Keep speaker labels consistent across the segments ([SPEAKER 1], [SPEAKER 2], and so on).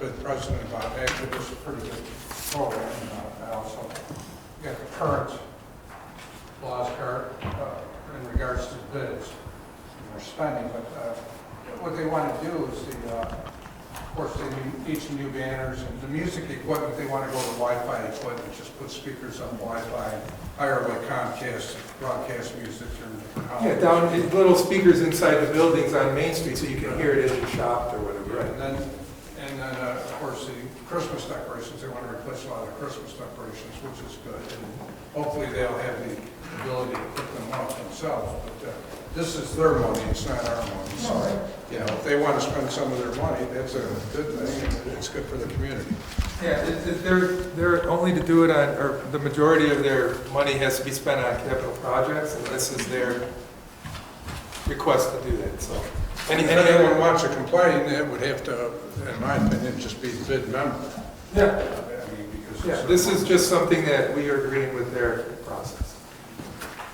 [SPEAKER 1] good president about that, but it's a pretty good program about that also. You got the current laws current, uh, in regards to bids and their spending, but uh, what they want to do is the, uh, of course, they need- need some new banners and the music equipment, they want to go to Wi-Fi equipment, just put speakers on Wi-Fi, hire like Comcast, to broadcast music through.
[SPEAKER 2] Yeah, down, in little speakers inside the buildings on Main Street, so you can hear it as you shop or whatever, right?
[SPEAKER 1] And then, and then, uh, of course, the Christmas decorations, they want to replace a lot of Christmas decorations, which is good. And hopefully they'll have the ability to put them up themselves, but uh, this is their money, it's not our money. So, you know, if they want to spend some of their money, that's a good thing, and it's good for the community.
[SPEAKER 2] Yeah, it- it- they're, they're only to do it on, or the majority of their money has to be spent on capital projects, and this is their request to do that, so. Any,
[SPEAKER 1] If
[SPEAKER 2] any other
[SPEAKER 1] anyone
[SPEAKER 2] one?
[SPEAKER 1] wants to complain, it would have to, in my opinion, just be the bid member.
[SPEAKER 2] Yeah,
[SPEAKER 1] I mean, because
[SPEAKER 2] yeah,
[SPEAKER 1] it's a-
[SPEAKER 2] this is just something that we are agreeing with their process.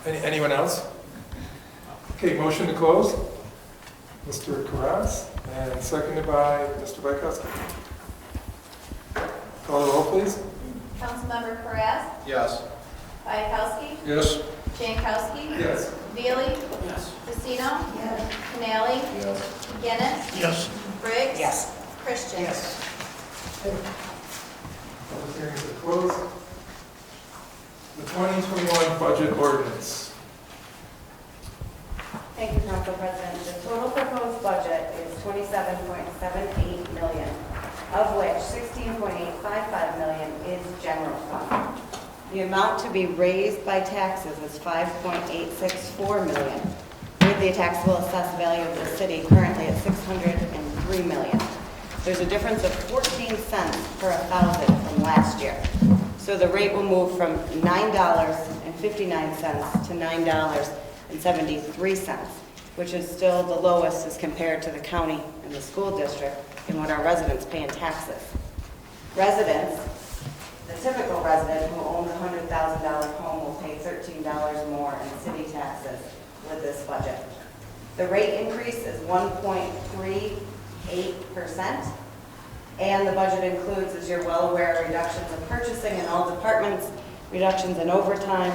[SPEAKER 2] Any, anyone else? Okay, motion to close? Mr. Karas, and seconded by Mr. Bykowski. Call the roll, please.
[SPEAKER 3] Councilmember Perez,
[SPEAKER 4] Yes.
[SPEAKER 3] Bayakowski,
[SPEAKER 1] Yes,
[SPEAKER 3] Jankowski.
[SPEAKER 2] Yes.
[SPEAKER 3] Veely,
[SPEAKER 4] Yes.
[SPEAKER 3] Casino. Yes. Canali.
[SPEAKER 4] Yes.
[SPEAKER 3] McGinnis.
[SPEAKER 5] Yes.
[SPEAKER 3] Briggs.
[SPEAKER 5] Yes.
[SPEAKER 3] Christian.
[SPEAKER 2] Public hearings are closed. The 2021 budget ordinance.
[SPEAKER 6] Thank you, Council President. The total proposed budget is 27.78 million, of which 16.855 million is general fund. The amount to be raised by taxes is 5.864 million, with the taxable assessed value of the city currently at 603 million. There's a difference of 14 cents per thousand from last year. So the rate will move from $9.59 to $9.73, which is still the lowest as compared to the county and the school district and what our residents pay in taxes. Residents, the typical resident who owns a $100,000 home will pay $13 more in city taxes with this budget. The rate increase is 1.38%. And the budget includes, as you're well aware, reductions in purchasing in all departments, reductions in overtime,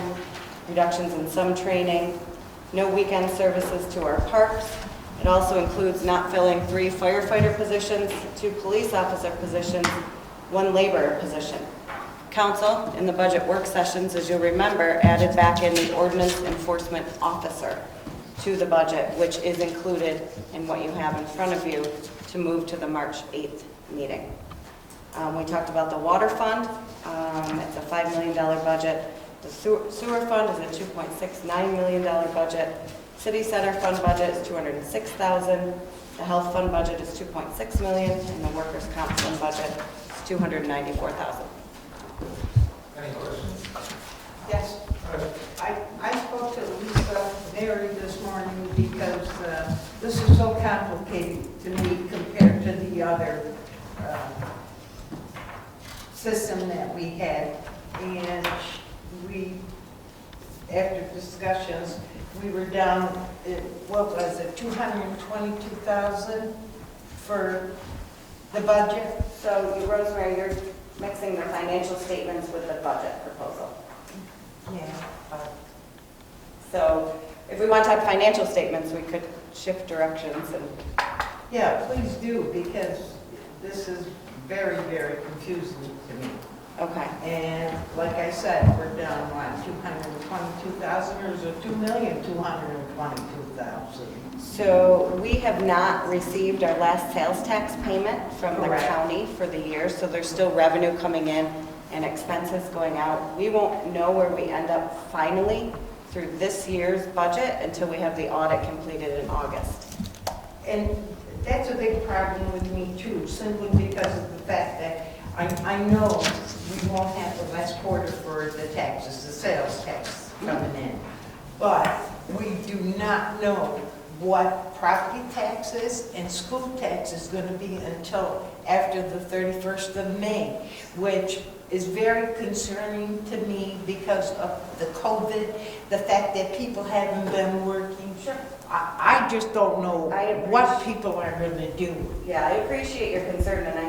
[SPEAKER 6] reductions in some training, no weekend services to our parks. It also includes not filling three firefighter positions, two police officer positions, one laborer position. Council, in the budget work sessions, as you'll remember, added back in the ordinance enforcement officer to the budget, which is included in what you have in front of you to move to the March 8th meeting. Um, We talked about the water fund, um, it's a $5 million budget. The sewer sewer fund is a $2.69 million budget. City center fund budget is $206,000. The health fund budget is $2.6 million, and the workers' comp fund budget is $294,000.
[SPEAKER 2] Any questions?
[SPEAKER 5] Yes. I, I spoke to Lisa Berry this morning because uh, this is so complicated to me compared to the other uh, system that we had. And we, after discussions, we were down, uh, what was it, 222,000 for the budget?
[SPEAKER 6] So you- Rosemary, you're mixing the financial statements with the budget proposal.
[SPEAKER 5] Yeah.
[SPEAKER 6] So if we want to talk financial statements, we could shift directions and
[SPEAKER 5] Yeah, please do, because this is very, very confusing to me.
[SPEAKER 6] Okay,
[SPEAKER 5] And like I said, we're down, what, 222,000, or is it 2,222,000?
[SPEAKER 6] so we have not received our last sales tax payment from the
[SPEAKER 5] Correct.
[SPEAKER 6] county for the year, so there's still revenue coming in and expenses going out. We won't know where we end up finally through this year's budget until we have the audit completed in August.
[SPEAKER 5] And that's a big problem with me too, simply because of the fact that I, I know we won't have the last quarter for the taxes, the sales tax coming in. But we do not know what property taxes and school tax is gonna be until after the thirty-first of May, which is very concerning to me because of the COVID, the fact that people haven't been working. Sure. I, I just don't know
[SPEAKER 6] I appreciate-
[SPEAKER 5] what people are gonna do.
[SPEAKER 6] Yeah, I appreciate your concern, and I